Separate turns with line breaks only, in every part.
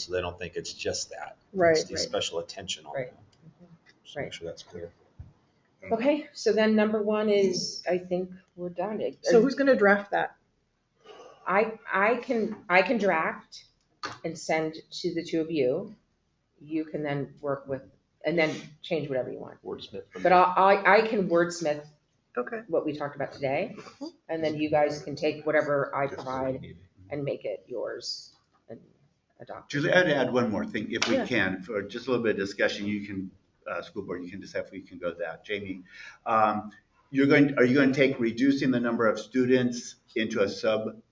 so they don't think it's just that.
Right,
It's the
right.
special attention on
Right.
that. Just make
Right.
sure that's clear.
Okay, so then number one is, I think we're done. It-
So who's gonna draft that?
I, I can, I can draft and send to the two of you. You can then work with, and then change whatever you want.
Wordsmith. for
But
me.
I, I, I can wordsmith
Okay.
what we talked about today, and then you guys can take whatever I provide and make it yours and adopt.
Julie, I'd add one more thing, if we
Yeah.
can, for just a little bit of discussion, you can, uh, school board, you can decide if we can go that. Jamie, um, you're going, are you going to take reducing the number of students into a sub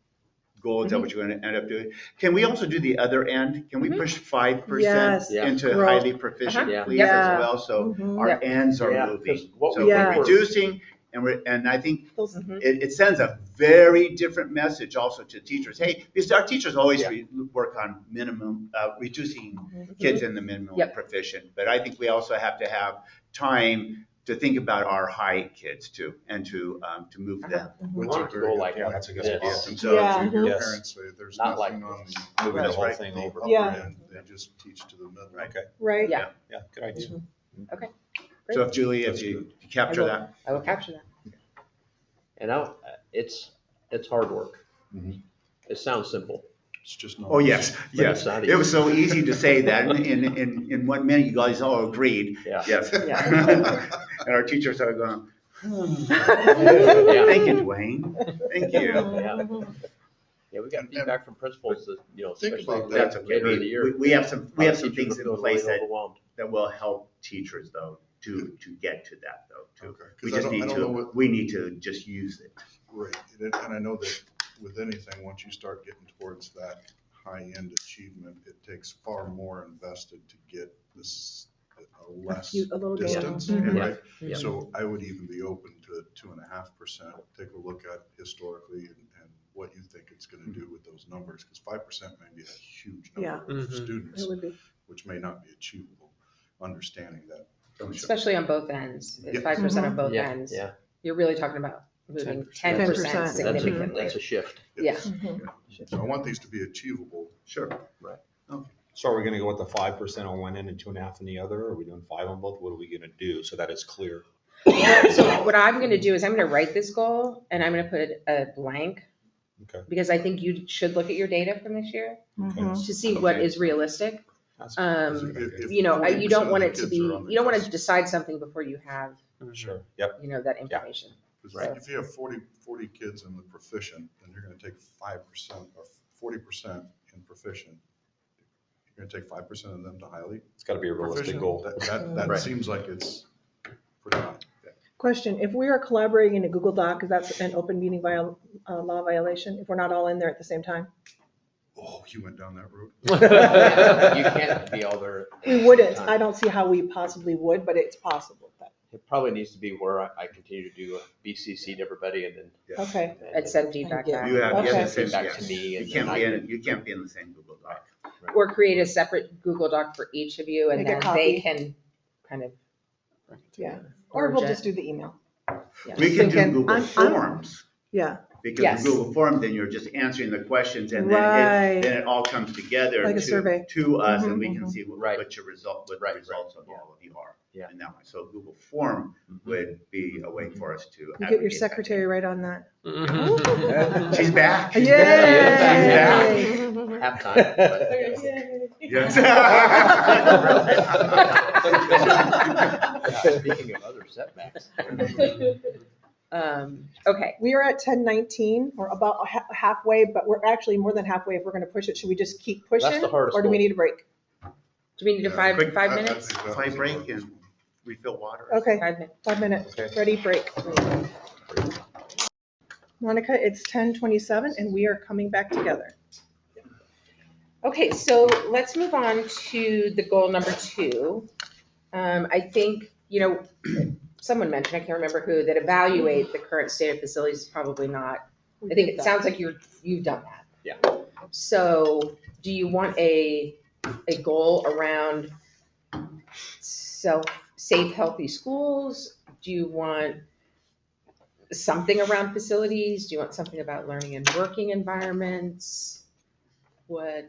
goal? Is that what you're going to end up doing? Can we also do the other end? Can we
Mhm.
push five percent
Yes.
Yeah.
into
Grow.
highly
Uh-huh.
proficient,
Yeah.
please,
Yep.
as well? So
Mhm.
our ends
Yeah,
are
'cause
moving.
what
So
we
we're
were-
reducing, and we're, and I think
Those-
Mhm.
it, it sends a very different message also to teachers. Hey, because our teachers always
Yeah.
re- work on minimum, uh, reducing kids in the minimum
Mm-hmm. Yep.
proficient. But I think we also have to have time to think about our high kids too, and to, um, to move them.
Uh-huh.
We want it to go like
Yeah, that's a good
this.
idea.
And
Since
so-
Yeah.
your
Yes.
parents say there's
Not like
nothing on
Moving the
That's
whole
right.
thing
the
over.
upper
Yeah.
end, they just teach to the middle.
Right.
Right.
Yeah,
Yeah, good idea.
Mm-hmm.
So if Julie, if you capture
I will.
that,
I will capture that.
And I, uh, it's, it's hard work.
Mm-hmm.
Mhm.
It sounds simple.
It's just not.
oh, yes,
But
yes.
it's not
It was
easy.
so easy to say that in, in, in, in one minute, you guys all agreed,
Yeah.
yes.
Yeah.
And our teachers are going, hmm.
Yeah.
Thank you, Dwayne. Thank you.
Yeah, Yeah, we got
And-
feedback from principals that, you know,
Think
especially
about
That's
that.
okay.
later in the
We,
year.
we- we have some, we
a lot
have
of
some
teachers
things
are
in
feeling
place that,
overwhelmed.
that will help teachers though, to, to get to that though, too.
Okay, 'cause
We
I
just
don't- I
need
don't know
to,
what-
we need to just use it.
Right, and it- and I know that with anything, once you start getting towards that high-end achievement, it takes far more invested to get this, a less
few- a little bit.
distance,
Mhm.
right?
Yeah.
So I would even be open to two and a half percent, take a look at historically and, and what you think it's gonna do with those numbers, because five percent may be a huge
Yeah.
number of
Mhm.
students,
It would be.
which may not be achievable, understanding that.
Especially on both ends,
Yeah.
five percent on both
Mm-hmm. Yeah,
ends.
yeah.
You're really talking about moving ten
10%.
percent
That's a-
That's a,
significantly.
that's a shift.
Yeah.
So I want these to be achievable.
Sure.
So are we gonna go with the five percent on one end and two and a half on the other? Are we doing five on both? What are we gonna do? So that it's clear.
So what I'm gonna do is I'm gonna write this goal and I'm gonna put a blank.
Okay.
Because I think you should look at your data from this year
Mhm.
to see what
Okay.
is realistic.
That's-
Um,
If- if
You know, I- you don't
40%
want
of
it
the
to be,
kids are on the
you don't wanna
cusp,
decide something before you have,
Sure, yep.
you know, that information.
'cause
Right.
If you have 40 40 kids in the proficient, then you're gonna take five percent or forty percent in proficient. You're gonna take five percent of them to highly,
It's gotta be a realistic
proficient,
goal.
That, that, that
Right.
seems like it's pretty high.
Question, if we are collaborating in a Google Doc, is that an open meeting viol, uh, law violation, if we're not all in there at the same time?
Oh, you went down that road?
You can't be all there. at the
We
same
wouldn't,
time.
I don't see how we possibly would, but it's possible.
It probably needs to be where I, I continue to do BCC to everybody and then.
Okay,
and then
And send feedback
Yeah.
back.
You have, you
Okay.
have to send,
Feedback to
yes.
me
You
and
can't
then
be
I-
in, you can't be in the same Google Doc.
Or create a separate Google Doc for each of you and
Make a
then they
copy.
can kind of.
yeah, or we'll just do the email,
yeah.
We can do
thinking,
Google
I'm- I'm-
Forms,
yeah,
because
Yes.
in Google Forms, then you're just answering the questions and then it,
right,
then it all comes together
Like a
to,
survey.
to us and
Mhm,
we can
mhm.
see what,
Right.
what your result, what
Right,
the
right,
results of
yeah.
all of you are.
Yeah.
In that way. So Google Form would be a way for us to.
you get your
aggregate that
secretary right on that.
data. She's back.
Yay!
She's back. She's back.
Halftime. but-
Yes.
Yeah, Speaking of other setbacks.
Um, okay,
We are at ten nineteen, or about ha- halfway, but we're actually more than halfway, if we're gonna push it, should we just keep pushing?
the hardest
Or do we
goal.
need a break?
do we need a
Yeah. uh,
five,
Quick,
five
I- I
minutes?
think that
Five
was a
break
lot.
and refill water.
Okay,
Five minutes.
five minutes,
Okay.
ready, break. Monica, it's ten twenty-seven, and we are coming back together.
Okay, so let's move on to the goal number two. Um, I think, you know, someone mentioned, I can't remember who, that evaluate the current state of facilities is probably not, I think it sounds like you're, you've done that.
Yeah.
So do you want a, a goal around self, safe, healthy schools? Do you want something around facilities? Do you want something about learning and working environments? What?